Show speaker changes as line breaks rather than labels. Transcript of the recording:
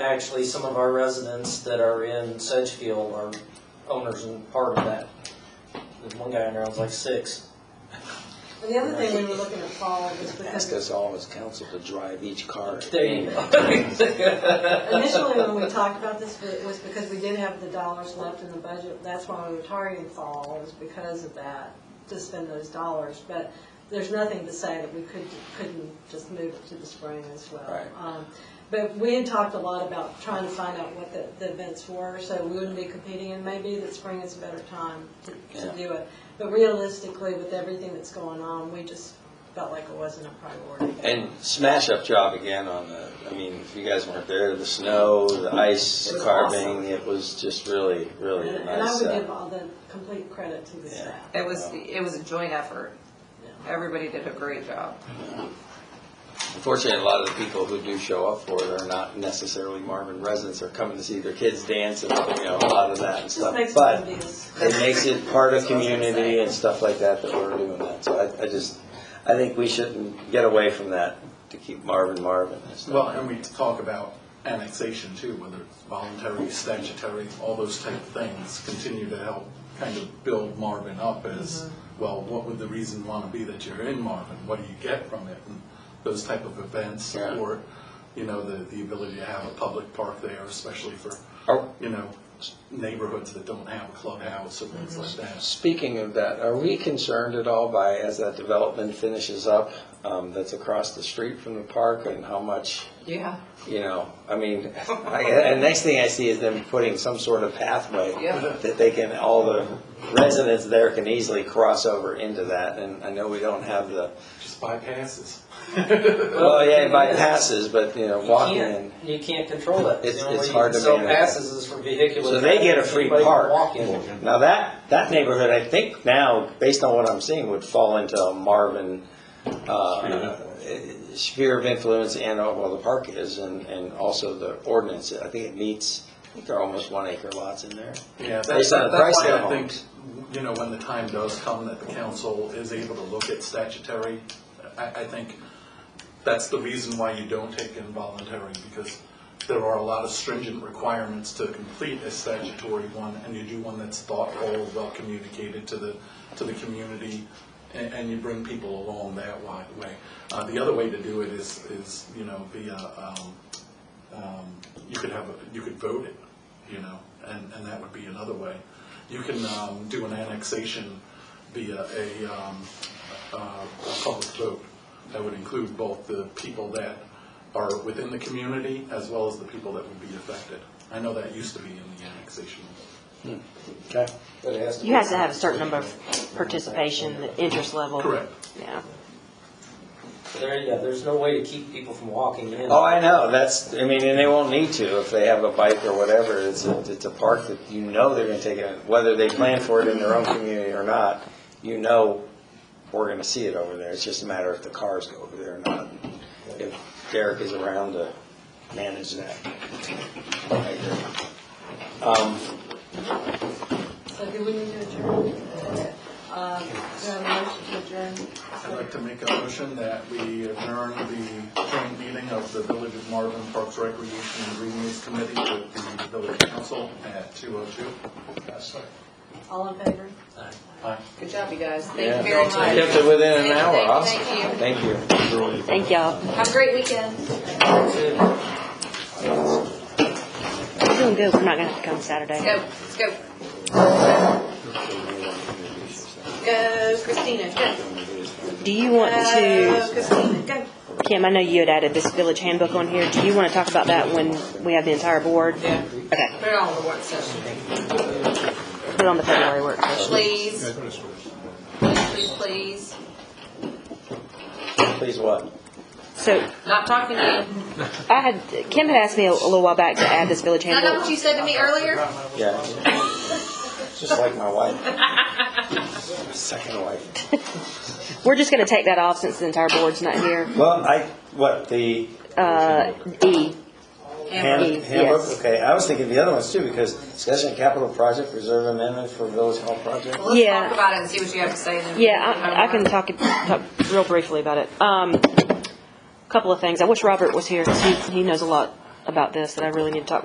actually, some of our residents that are in Sedgefield are owners and part of that. There's one guy in there, I was like six.
And the other thing we were looking at, Paul, is
Ask
because
us all as council to drive each car.
There you go.
initially when we talked about this, it was because we did have the dollars left in the budget. That's why we were targeting fall, was because of that, to spend those dollars. But there's nothing to say that we could, couldn't just move it to the spring as well.
Right.
Um, But we had talked a lot about trying to find out what the, the events were, so we wouldn't be competing, and maybe that spring is a better time to, to
Yeah.
do it. But realistically, with everything that's going on, we just felt like it wasn't a priority.
And smash up job again on the, I mean, if you guys weren't there, the snow, the ice
Mm-hmm. It was awesome.
carving, it was just really, really a
And and I
nice.
would
uh,
give all the complete credit to the
Yeah.
staff.
It was, it was a joint effort.
Yeah.
Everybody did a great job.
Unfortunately, a lot of the people who do show up for it are not necessarily Marvin residents, are coming to see their kids dance and, you know, a lot of that and
Just
stuff.
makes it
But
obvious.
it makes it part of community and stuff like that that we're doing that. So I, I just, I think we shouldn't get away from that to keep Marvin Marvin. and stuff.
Well, and we talk about annexation too, whether it's voluntary, statutory, all those type of things continue to help kind of build Marvin up as, well, what would the reason want to be that you're in Marvin? What do you get from it? And those type of events
Yeah.
or, you know, the, the ability to have a public park there, especially for,
Are-
you know, neighborhoods that don't have a clubhouse or things like that.
Speaking of that, are we concerned at all by, as that development finishes up, um, that's across the street from the park and how much,
Yeah.
you know, I mean, I, and next thing I see is them putting some sort of pathway
Yeah.
that they can, all the residents there can easily cross over into that. And I know we don't have the,
Just bypasses.
well, yeah, by passes, but, you know,
You
walking in.
can't, you can't control that.
It's-
The only
it's
way
hard
you can
to
sell
manage.
passes is for vehicular.
So they get a
traffic,
free
anybody can
park.
Walk in.
Now that, that neighborhood, I think now, based on what I'm seeing, would fall into a Marvin, uh, sphere of influence and, uh, well, the park is, and, and also the ordinance. I think it meets, I think there are almost one acre lots in there.
Yeah, that-
Based on the
that- that's
price
why
of
I think,
homes.
you know, when the time does come that the council is able to look at statutory, I, I think that's the reason why you don't take involuntary, because there are a lot of stringent requirements to complete a statutory one, and you do one that's thoughtful, well communicated to the, to the community, and, and you bring people along that wi- way. Uh, the other way to do it is, is, you know, via, um, um, you could have, a- you could vote it, you know, and, and that would be another way. You can um, do an annexation via a, um, uh, a public vote. That would include both the people that are within the community as well as the people that would be affected. I know that used to be in the annexation.
Okay.
You have to have a certain number of participation, the interest level.
Correct.
Yeah.
There you go. There's no way to keep people from walking in.
Oh, I know, that's, I mean, and they won't need to if they have a bike or whatever. It's a, it's a park that you know they're gonna take it, whether they plan for it in their own community or not, you know we're gonna see it over there. It's just a matter if the cars go over there or not. If Derek is around to manage that. I agree. Um,
So do we need to adjourn? Uh, do I have a motion
I'd like to make a motion that we adjourn the joint meeting of the Village of Marvin Parks Recreation and Greenways Committee with the Village Council at 2:02.
to adjourn? All in favor?
Aye.
Good job, you guys.
yeah.
Thank you very much.
Kept it within an hour, awesome.
Thank you.
Thank you.
Thank y'all.
Have a great weekend.
We're doing good. We're not gonna have to come Saturday.
Go, let's go. Go, Christina, go.
Do you want
Go,
to,
Christina, go.
Kim, I know you had added this village handbook on here. Do you wanna talk about that when we have the entire board?
Yeah.
Okay,
Put it on the work session,
put it on the February work session.
please. Please, please, please.
Please what?
So
Not talking to you.
I had, Kim had asked me a a little while back to add this village
Is that not what
handbook.
you said to me earlier?
Yeah. Just like my wife. Second wife.
We're just gonna take that off since the entire board's not here.
Well, I, what, the
Uh, E,
hand-
Yes.
handbook? Okay, I was thinking the other ones too, because discussion of capital project, reserve amendment for village hall project.
Well, Let's
Yeah.
talk about it and see what you have to say then.
Yeah, I, I can talk, talk real briefly about it. Um, couple of things. I wish Robert was here because he, he knows a lot about this that I really need to talk with